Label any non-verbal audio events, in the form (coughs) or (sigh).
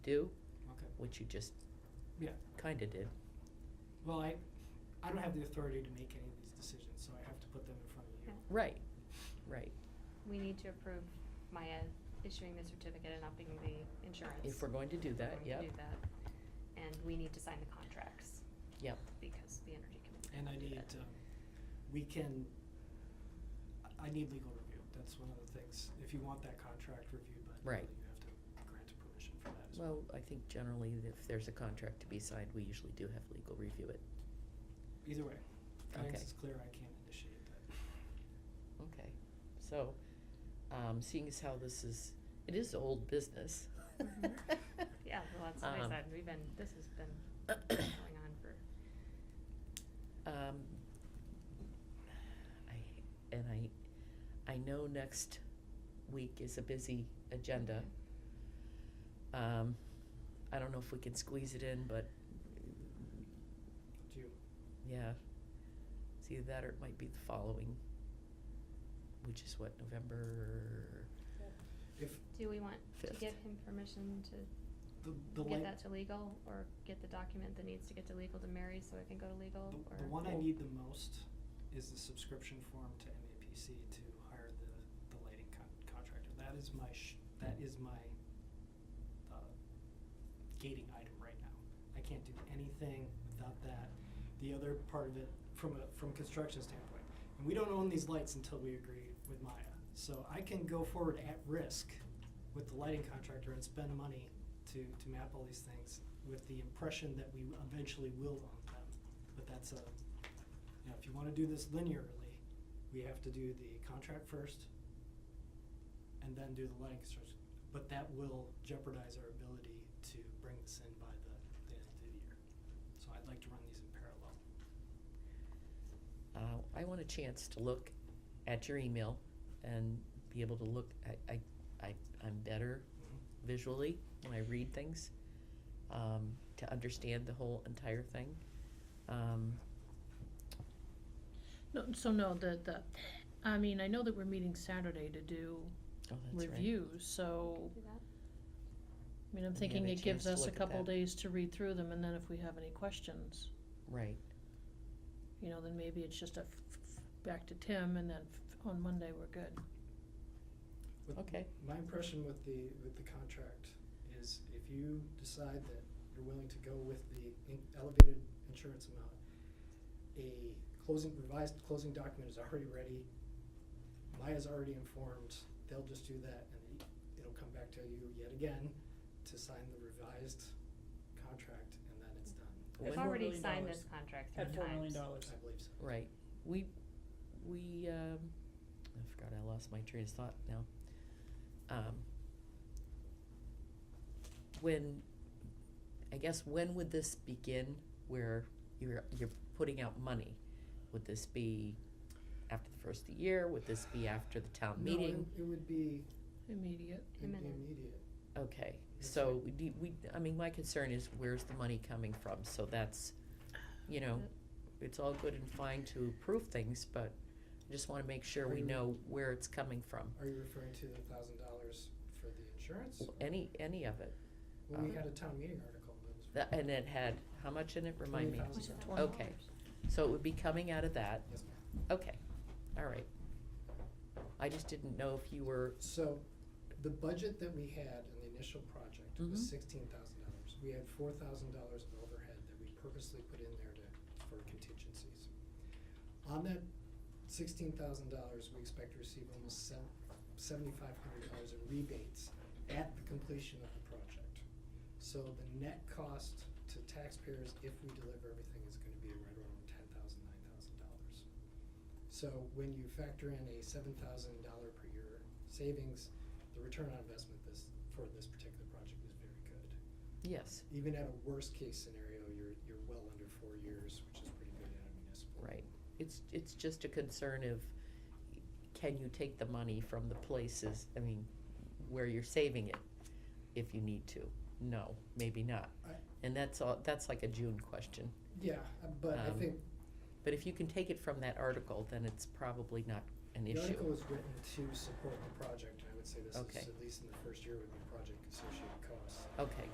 do, Okay, which you just Yeah. kinda did. well, I, I don't have the authority to make any of these decisions, so I have to put them in front of you. Right, right. We need to approve Maya issuing the certificate and upping the insurance. If we're going to do that, We're yeah, going to do that. And we need to sign the contracts. Yep. Because the energy committee. And I did need, that. um, we can, I, I need legal review, that's one of the things, if you want that contract reviewed by Right. legal, you have to grant permission for that as well. Well, I think generally if there's a contract to be signed, we usually do have legal review it. Either way, as long Okay. as it's clear, I can't initiate that. Okay, so, um, seeing as how this is, it is old business. (laughs) Mhm. Yeah, well, that's what I Um, said, we've been, this (coughs) has been going on for, Um, I, and I, I know next week is a busy agenda. Um, I don't know if we can squeeze it in, but Do you, yeah. It's either that or it might be the following, which is what, November? if do we want to Fifth. give him permission to the, the get lang- that to legal? Or get the document that needs to get to legal to Mary so it can go to legal, The, or? the one I Well- need the most is the subscription form to MAPC to hire the, the lighting con- contractor. That is my sh- that is my, uh, gating item right now. I can't do anything without that. The other part of it, from a, from construction standpoint, and we don't own these lights until we agree with Maya. So I can go forward at risk with the lighting contractor and spend money to, to map all these things with the impression that we eventually will own them. But that's a, you know, if you wanna do this linearly, we have to do the contract first and then do the lighting construction. But that will jeopardize our ability to bring this in by the, the end of the year. So I'd like to run these in parallel. Uh, I want a chance to look at your email and be able to look, I, I, I, I'm better Mm-hmm. visually when I read things, um, to understand the whole entire thing. Um, No, so no, the, the, I mean, I know that we're meeting Saturday to do oh, that's right. reviews, so, Do that? I mean, I'm And thinking get a it chance gives to us a look at couple that. days to read through them, and then if we have any questions, Right, you know, then maybe it's just a f- f- back to Tim, and then f- on Monday, we're good. With- okay, My impression with the, with the contract is if you decide that you're willing to go with the in- elevated insurance amount, a closing, revised closing document is already ready. Maya's already informed, they'll just do that and it- it'll come back to you yet again to sign the revised contract and then it's done, When- We've four already million signed dollars. this contract three At times. four million dollars. I believe so. right. We, we, um, I forgot I lost my train of thought now. Um, when, I guess, when would this begin where you're, you're putting out money? Would this be after the first of the year? Would this be after the town No, it- meeting? It would be Immediate. it'd be Imminent. immediate. Okay, Yes, so we, de- we, I mean, my concern is where's the money coming from? So that's, you know, it's all good and fine to approve things, but I just wanna make sure Are we you- know where it's coming from. Are you referring to the thousand dollars for the insurance? Any, any of it. Well, we Uh, had a town meeting article that was. That, and it had, how much in it, remind me? $20,000. Which is Okay. $1,000. So it would be coming out of that, Yes, ma'am. okay, all right. I just didn't know if you were, So, the budget that we had in the initial project Mhm. was sixteen thousand dollars. We had four thousand dollars of overhead that we purposely put in there to, for contingencies. On that sixteen thousand dollars, we expect to receive almost seventy-five hundred dollars in rebates at the completion of the project. So the net cost to taxpayers, if we deliver everything, is gonna be right around ten thousand, nine thousand dollars. So when you factor in a seven thousand dollar per year savings, the return on investment this, for this particular project is very good. yes, Even at a worst case scenario, you're, you're well under four years, which is pretty good at a municipal. right. It's, it's just a concern of, can you take the money from the places, I mean, where you're saving it, if you need to? No, maybe not. I- And that's all, that's like a June question. Yeah, uh, but I Um, think But if you can take it from that article, then it's probably not an the article issue. was written to support the project, and I would say this is, Okay. at least in the first year, would be project associated costs. Okay,